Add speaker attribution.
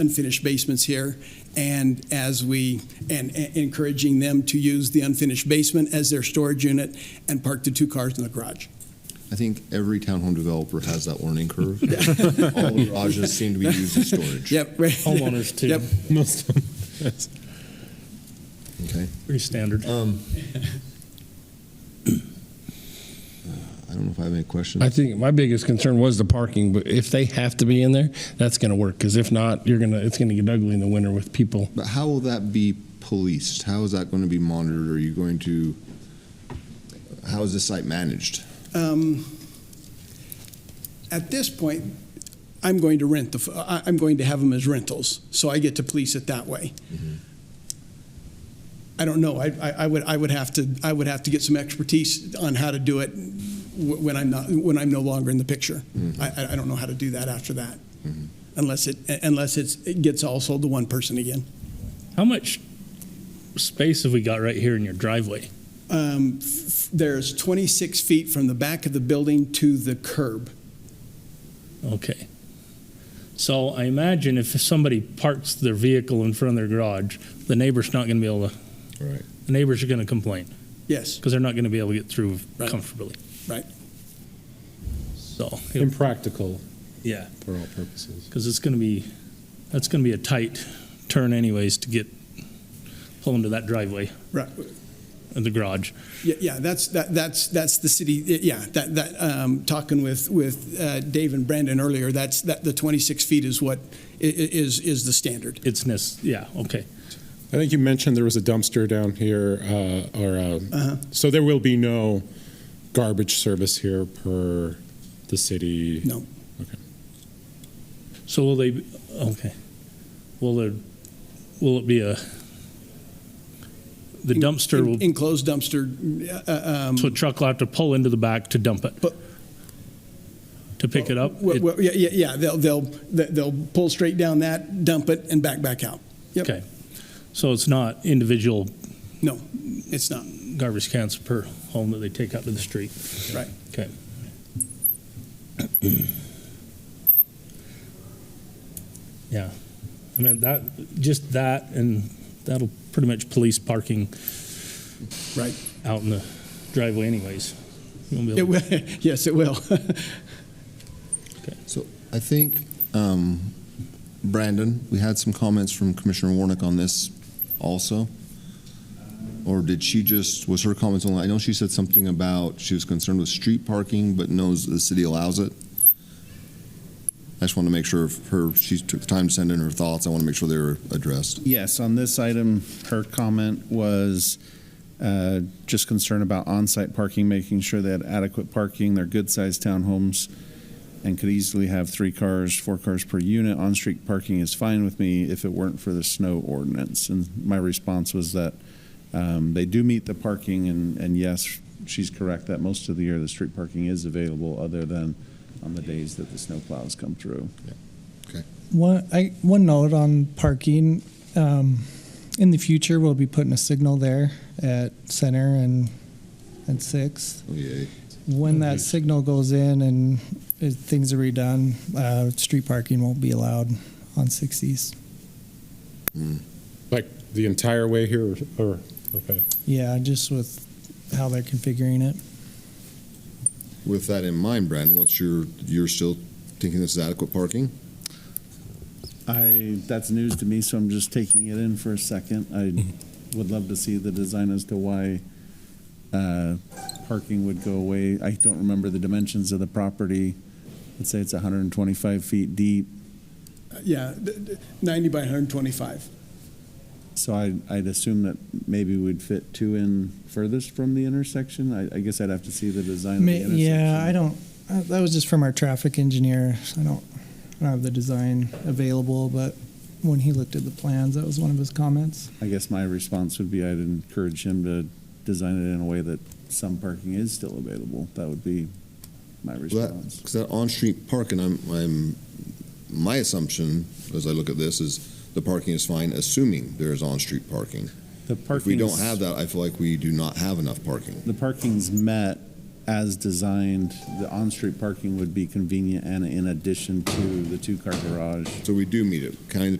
Speaker 1: unfinished basements here, and as we, and and encouraging them to use the unfinished basement as their storage unit and park the two cars in the garage.
Speaker 2: I think every townhome developer has that learning curve. All the garages seem to be used as storage.
Speaker 1: Yep. right.
Speaker 3: Homeowners too.
Speaker 1: Yep.
Speaker 3: Most of them. That's
Speaker 2: Okay.
Speaker 3: pretty standard.
Speaker 2: Um, I don't know if I have any questions.
Speaker 4: I think my biggest concern was the parking, but if they have to be in there, that's going to work. Because if not, you're gonna it's going to get ugly in the winter with people.
Speaker 2: But how will that be policed? How is that going to be monitored? Are you going to, how is this site managed?
Speaker 1: Um, At this point, I'm going to rent the, f- I- I'm going to have them as rentals, so I get to police it that way. I don't know, I, I I would, I would have to, I would have to get some expertise on how to do it wh- when I'm not, when I'm no longer in the picture. I, I- I don't know how to do that after that, unless it, unless it's, it gets all sold to one person again.
Speaker 3: How much space have we got right here in your driveway?
Speaker 1: Um, f- There's 26 feet from the back of the building to the curb.
Speaker 3: Okay. So I imagine if somebody parks their vehicle in front of their garage, the neighbor's not going to be able to.
Speaker 2: Right.
Speaker 3: The neighbors are going to complain
Speaker 1: Yes,
Speaker 3: because they're not going to be able to get through
Speaker 1: Right.
Speaker 3: comfortably.
Speaker 1: Right.
Speaker 3: So
Speaker 5: impractical
Speaker 3: yeah,
Speaker 5: for all purposes.
Speaker 3: because it's going to be that's going to be a tight turn anyways to get pull into that driveway
Speaker 1: right.
Speaker 3: in the garage.
Speaker 1: Yeah, yeah, that's, that, that's, that's the city, yeah, that, that, um, talking with, with, uh, Dave and Brandon earlier, that's, that, the twenty-six feet is what, i- i- is, is the standard.
Speaker 3: It's nest. Yeah. Okay.
Speaker 5: I think you mentioned there was a dumpster down here, uh, or, uh, so there will be no garbage service here per the city?
Speaker 1: No.
Speaker 3: So will they? Okay. Will there? Will it be a? The dumpster will.
Speaker 1: Enclosed dumpster, uh, um.
Speaker 3: So a truck will have to pull into the back to dump it.
Speaker 1: But-
Speaker 3: to pick it up.
Speaker 1: well,
Speaker 3: It-
Speaker 1: well, Yeah, yeah, yeah, they'll, they'll, they'll pull straight down that, dump it, and back, back out. Yep.
Speaker 3: Okay. So it's not individual
Speaker 1: No, it's not,
Speaker 3: garbage cans per home that they take out to the street.
Speaker 1: right.
Speaker 3: Okay. Yeah. I mean, that, just that, and that'll pretty much police parking.
Speaker 1: Right.
Speaker 3: Out in the driveway anyways. You won't be able
Speaker 1: It
Speaker 3: to-
Speaker 1: will, yes, it will.
Speaker 2: So I think, um, Brandon, we had some comments from Commissioner Warnick on this also. Or did she just, was her comments only, I know she said something about she was concerned with street parking, but knows the city allows it. I just want to make sure if her, she took the time to send in her thoughts. I want to make sure they were addressed.
Speaker 6: Yes, on this item, her comment was uh, just concern about on-site parking, making sure they had adequate parking. They're good-sized townhomes and could easily have three cars, four cars per unit. On-street parking is fine with me if it weren't for the snow ordinance. And my response was that um, they do meet the parking, and and yes, she's correct that most of the year, the street parking is available, other than on the days that the snow plows come through.
Speaker 7: One, I, one note on parking. Um, in the future, we'll be putting a signal there at Center and and Sixth.
Speaker 2: Oh, yeah.
Speaker 7: When
Speaker 6: Mm-hmm.
Speaker 7: that signal goes in and if things are redone, uh, street parking won't be allowed on Sixth East.
Speaker 5: Like the entire way here, or, okay.
Speaker 7: Yeah, just with how they're configuring it.
Speaker 2: With that in mind, Brandon, what's your, you're still thinking this is adequate parking?
Speaker 6: I, that's news to me, so I'm just taking it in for a second. I would love to see the design as to why uh, parking would go away. I don't remember the dimensions of the property. Let's say it's 125 feet deep,
Speaker 1: Yeah, d- d- ninety by hundred and twenty-five.
Speaker 6: so I, I'd assume that maybe we'd fit two in furthest from the intersection. I, I guess I'd have to see the design of the
Speaker 7: Ma-
Speaker 6: intersection.
Speaker 7: yeah, I don't. Uh, that was just from our traffic engineer. I don't, I don't have the design available, but when he looked at the plans, that was one of his comments.
Speaker 6: I guess my response would be I'd encourage him to design it in a way that some parking is still available. That would be my response.
Speaker 2: Because that on-street parking, I'm, I'm, my assumption as I look at this is the parking is fine, assuming there is on-street parking.
Speaker 6: The
Speaker 2: If we
Speaker 6: parking,
Speaker 2: don't have that, I feel like we do not have enough parking.
Speaker 6: the parking's met as designed. The on-street parking would be convenient and in addition to the two-car garage.
Speaker 2: So we do meet it, counting the